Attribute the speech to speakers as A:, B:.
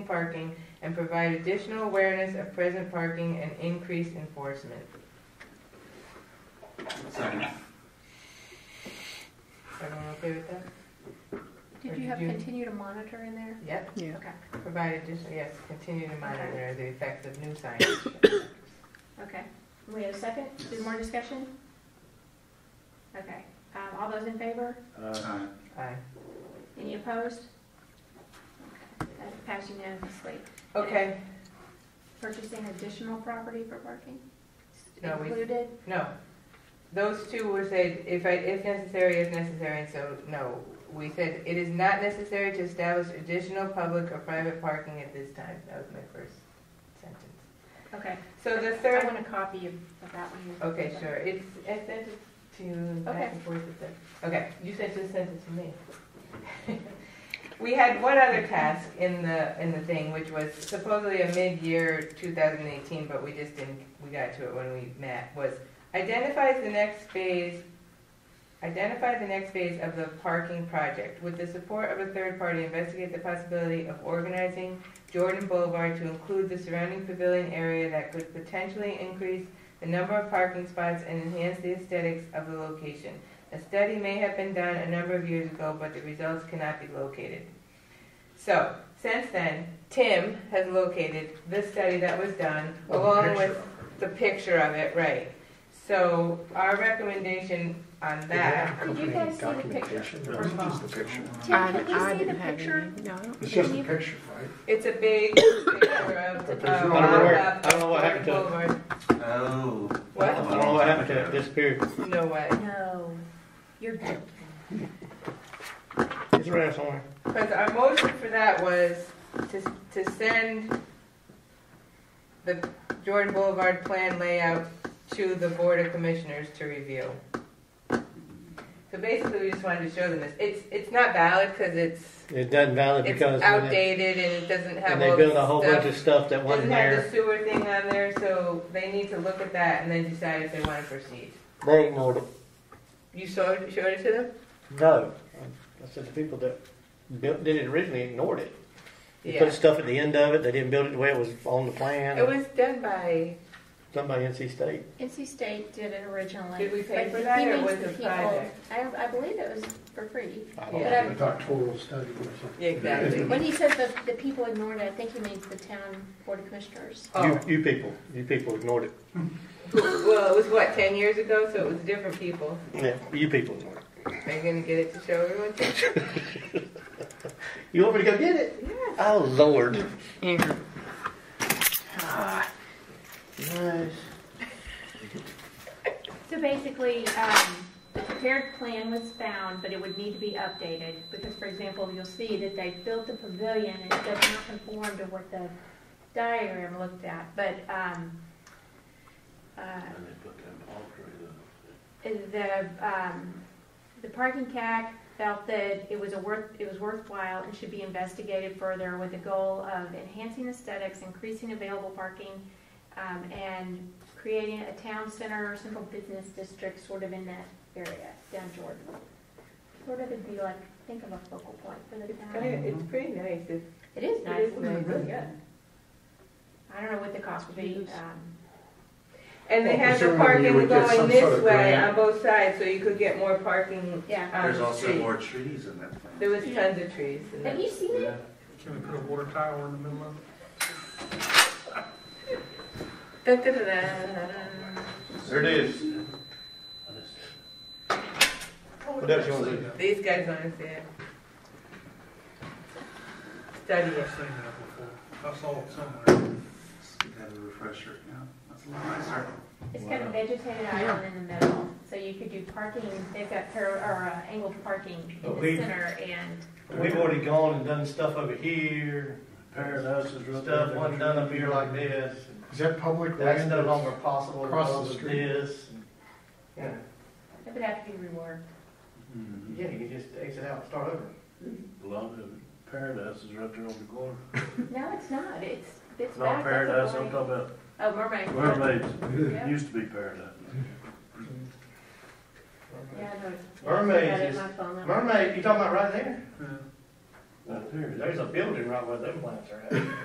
A: parking and provide additional awareness of present parking and increased enforcement.
B: Second.
A: Everyone okay with that? Or
C: Did you have
A: did you-
C: continue to monitor in there?
A: Yep.
D: Yeah.
C: Okay,
A: Provide additional, yes, continue to monitor the effects of new signs.
C: okay. We have a second? Is there more discussion? Okay, um, all those in favor?
E: Uh,
B: Aye.
A: Aye.
C: Any opposed? Okay, That passed unanimously.
A: Okay,
C: Purchasing additional property for parking?
A: No, we-
C: Included?
A: no. Those two were said, if I, if necessary, if necessary, and so, no. We said, it is not necessary to establish additional public or private parking at this time. That was my first sentence.
C: Okay.
A: So the
C: I
A: third
C: want a copy of of that one.
A: Okay, sure, it's, I sent it to you back and forth with them. Okay, you said just sent it to me. We had one other task in the, in the thing, which was supposedly a mid-year two thousand eighteen, but we just didn't, we got to it when we met, was identify the next phase, identify the next phase of the parking project. With the support of a third party, investigate the possibility of organizing Jordan Boulevard to include the surrounding pavilion area that could potentially increase the number of parking spots and enhance the aesthetics of the location. A study may have been done a number of years ago, but the results cannot be located. So, since then, Tim has located the study that was done,
E: Oh,
A: along with the picture of it, right. So, our recommendation on that,
C: Did you guys see the picture?
E: First
C: of all.
E: the picture.
C: Tim,
D: I,
C: can we
D: I
C: see the
D: didn't have
C: picture?
D: any. No, I don't-
E: It's just a picture, right?
A: it's a big picture of,
E: But
A: of
E: there's no-
F: I don't know where-
A: up
F: I don't know what happened to it.
A: Boulevard.
B: Oh.
F: I don't know what happened to it, disappeared.
A: No way.
C: No, you're joking.
F: It's around somewhere.
A: Because our motion for that was to, to send the Jordan Boulevard plan layout to the Board of Commissioners to review. So basically, we just wanted to show them this. It's, it's not valid because it's,
F: It doesn't valid
A: it's
F: because when they,
A: outdated and it doesn't have
F: and
A: all
F: they
A: the
F: built a whole bunch
A: stuff.
F: of stuff that wasn't
A: Doesn't have the
F: there.
A: sewer thing on there, so they need to look at that and then decide if they want to proceed.
F: They ignored it.
A: You showed, showed it to them?
F: No. I said the people that built, did it originally ignored it. They
A: Yeah.
F: put stuff at the end of it. They didn't build it the way it was on the plan.
A: It was done by,
F: Somebody in NC State.
C: NC State did it originally.
A: Did we pay
C: but
A: for that,
C: he
A: or
C: means
A: was
C: the
A: it
C: people-
A: private?
C: I, I believe it was for free.
F: I don't
A: Yeah.
F: know.
E: The doctoral study or something.
A: Yeah, exactly.
C: When he says the, the people ignored it, I think he means the town board of commissioners.
A: oh,
F: You, you people, you people ignored it.
A: well, it was what, 10 years ago, so it was different people.
F: Yeah, you people ignored it.
A: Are you gonna get it to show everyone?
F: You want me to go get it?
A: Yeah.
F: Oh Lord.
D: Yeah.
A: Ah.
F: Nice.
C: So basically, um, the prepared plan was found, but it would need to be updated, because for example, you'll see that they built the pavilion and it does not conform to what the diagram looked at, but, um, uh, the, um, the parking CAC felt that it was a worth, it was worthwhile and should be investigated further with the goal of enhancing aesthetics, increasing available parking, um, and creating a town center, central business district sort of in that area, down Jordan. Sort of it'd be like, think of a focal point for the town.
A: It's pretty nice. It's,
C: It is
A: it
C: nice.
A: is nice. yeah.
C: I don't know what the cost would be, um,
A: And they
E: Well,
A: have the
E: presumably you
A: parking
E: would get
A: going
E: some sort
A: this
E: of
A: way
E: grant.
A: on both sides, so you could get more parking
C: yeah.
A: on
B: There's
A: the
B: also
A: street.
B: more trees in that
A: There was
B: thing.
A: tons of trees. in
C: Have
A: that.
C: you seen it?
E: Can we put a water tower in the middle of
A: Dun, dun, dun, dun, dun, dun.
B: There it is.
F: What else you want to do?
A: These guys wanna see it. Study
E: I've seen
A: it.
E: that before. I saw it somewhere.
B: You got a refresher, yeah. That's a lot nicer.
C: It's got a vegetated island in the middle, so you could do parking, they've got per, or uh, angled parking in
F: But
C: the
F: we-
C: center and,
F: We've already gone and done stuff over here,
E: Paradise is right
F: stuff
E: there.
F: wasn't done up here like this.
E: Is that public
F: That's
E: land?
F: no longer possible
E: Across the
F: because of
E: street.
F: this.
A: Yeah.
C: it would have to be reworked.
B: Mm-hmm.
F: Yeah, you can just exit out and start over.
G: Love it. Paradise is right there on the corner.
C: No, it's not, it's, it's
G: Not
C: back. that's a
G: paradise, I'm
C: point.
G: talking about
C: Oh, mermaid.
G: mermaids.
C: Yeah.
G: It used to be paradise.
C: Yeah, I know.
F: Mermaids
C: I got it in
F: is-
C: my phone now.
F: Mermaid, you talking about right there?
E: Yeah.
G: Right there.
F: There's a building right where them plants are at.